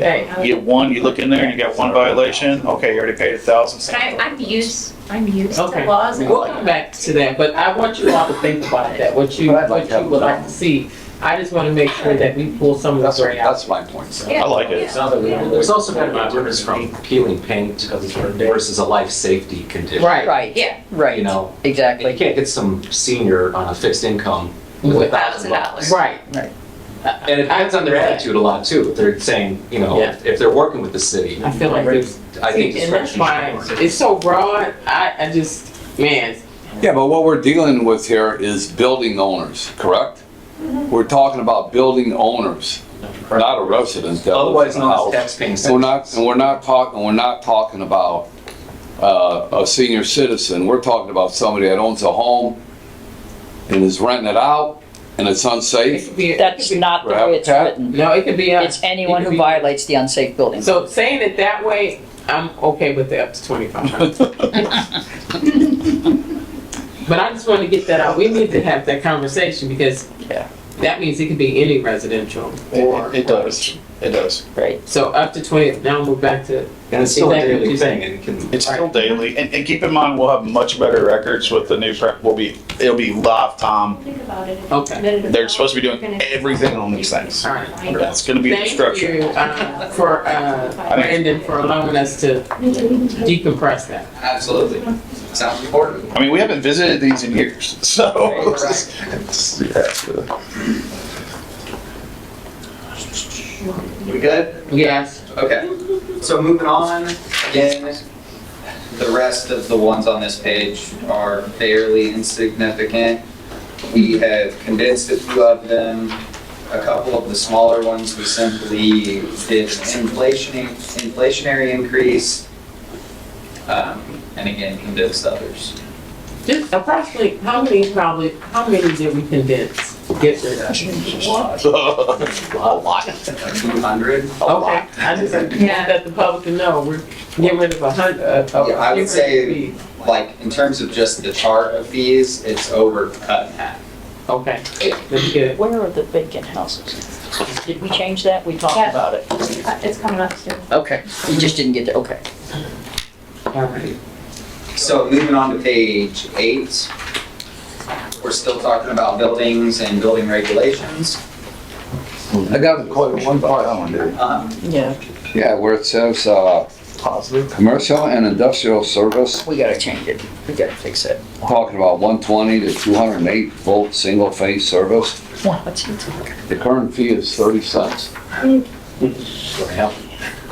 Right. You get one, you look in there and you got one violation, okay, you already paid a thousand. But I, I'm used, I'm used to Okay. laws and We'll come back to that, but I want you all to think about that, what you, But I'd like what to have you would some. like to see. I just want to make sure that we pull some of the That's, gray out. that's my point. Yeah. I like it. There's also kind of a difference from peeling paint versus a life safety condition. Right, Right, Yeah, You right, know, you exactly. can't get some senior on a fixed income with a With thousand thousand bucks. dollars. right. Right. And it depends on their attitude a lot too. If they're saying, you know, Yeah. if they're working with the city, I feel like it's, I think and that's discretion why, should work. it's so broad, I, I just, man, Yeah, but what we're dealing with here is building owners, correct? Mm-hmm. We're talking about building owners, not a resident. that lives Otherwise in a known house. as taxpaying And We're citizens. not, and we're not talking, we're not talking about, uh, a senior citizen. We're talking about somebody that owns a home and is renting it out and it's it unsafe. could be. it That's could be- not the way it's Habitat? written. No, it could be, a- It's anyone It could who be- violates the unsafe building. so saying it that way, I'm okay with the up to twenty-five hundred. But I just want to get that out, we need to have that conversation because Yeah. that means it could be any residential. or- It it does, it does. Right. So up to twenty, now we're back to, And it's still a Exactly. daily thing and it can. It's still daily, and, and keep in mind, we'll have much better records with the new prep, we'll be, it'll be live time. Think about it. okay, Oh. They're supposed to be doing everything on these things. all right. That's gonna be the Thank structure. you, uh, for, uh, think- Brandon, for allowing us to decompress that. Absolutely. Sounds important. I mean, we haven't visited these in years, so. We good? Yes, Okay, so moving on, again, the rest of the ones on this page are fairly insignificant. We have condensed a few of them. A couple of the smaller ones, we simply did an inflation, inflationary increase. um, And again, condensed others. just approximately, how many probably, how many did we condense, get rid of? A lot. A few hundred. Okay, I just want Yeah. that the public to know, we're getting rid of a hundred, Yeah, I would say- Like, in terms of just the chart of these, it's over cut in half. Okay, that's good. Where are the vacant houses? Did we change that? We talked Yeah. about it. Uh, It's coming up soon. Okay, you just didn't get there, okay. All right. So moving on to page eight, we're still talking about buildings and building regulations. I got a question, one part I want to do. Um, Yeah, Yeah, where it says, uh, Positive. commercial and industrial service, we gotta change it. We gotta fix it. talking about one twenty to two hundred and eight volt single phase service. What's he talking? The current fee is thirty cents.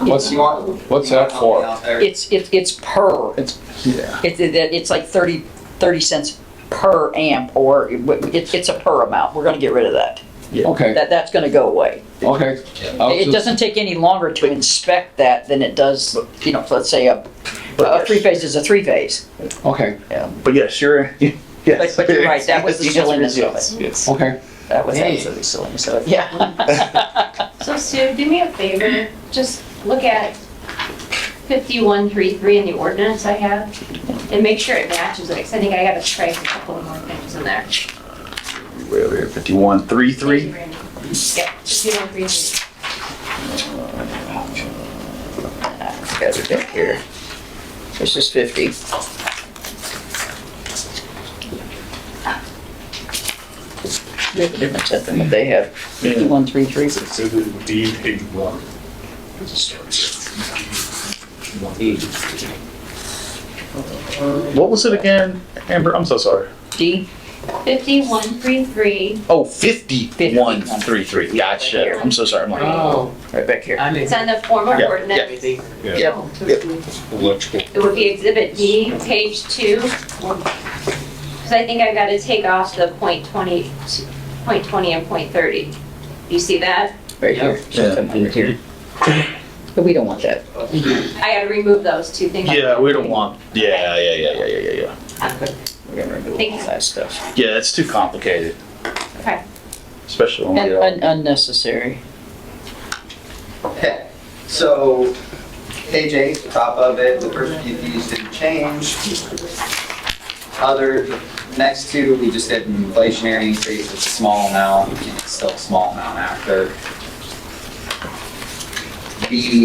What's, you want- what's you want that for? out there? It's, it's, it's per. It's, yeah. It's, it- it's like thirty, thirty cents per amp, or it's, it's a per amount. We're gonna get rid of that. Okay, That, that's gonna go away. okay. I was It just- doesn't take any longer to inspect that than it does, you know, let's say a, a But three phase is a three phase. Okay, but yes, sure. But, but you're right, that was the silliness of it. Yes. okay. That was Dang. absolutely silliness of it, yeah. So Sue, do me a favor, just look at 5133 in the ordinance I have and make sure it matches it, 'cause I think I gotta trace a couple more things in there. Fifty-one, three, Thank three. you, Randy. Yep, 5133. Got it back here. This is fifty. There's a difference at them, they have fifty-one, three, three. What was it again, Amber? I'm so sorry. D, 5133, Oh, fifty-one, three, three. Gotcha. I'm so sorry. I'm like, Oh, right back here. I didn't. it's on the form of Yeah, ordinance. Everything. Yep, It would be exhibit D, page two. Because I think I gotta take off the point 20, point 20 and point 30. You see that? right here. Something right here. But we don't want that. I gotta remove those two things. yeah, we don't want. Yeah, yeah, yeah, yeah, yeah, yeah, yeah. We're gonna remove Thank all you. that stuff. Yeah, it's too complicated. Okay. Especially when we Un- get all- un- Unnecessary. Okay, so page eight, the top of it, the first few fees didn't change. Other, the next two, we just did an inflationary increase, it's a small amount, it's still a small amount after. BD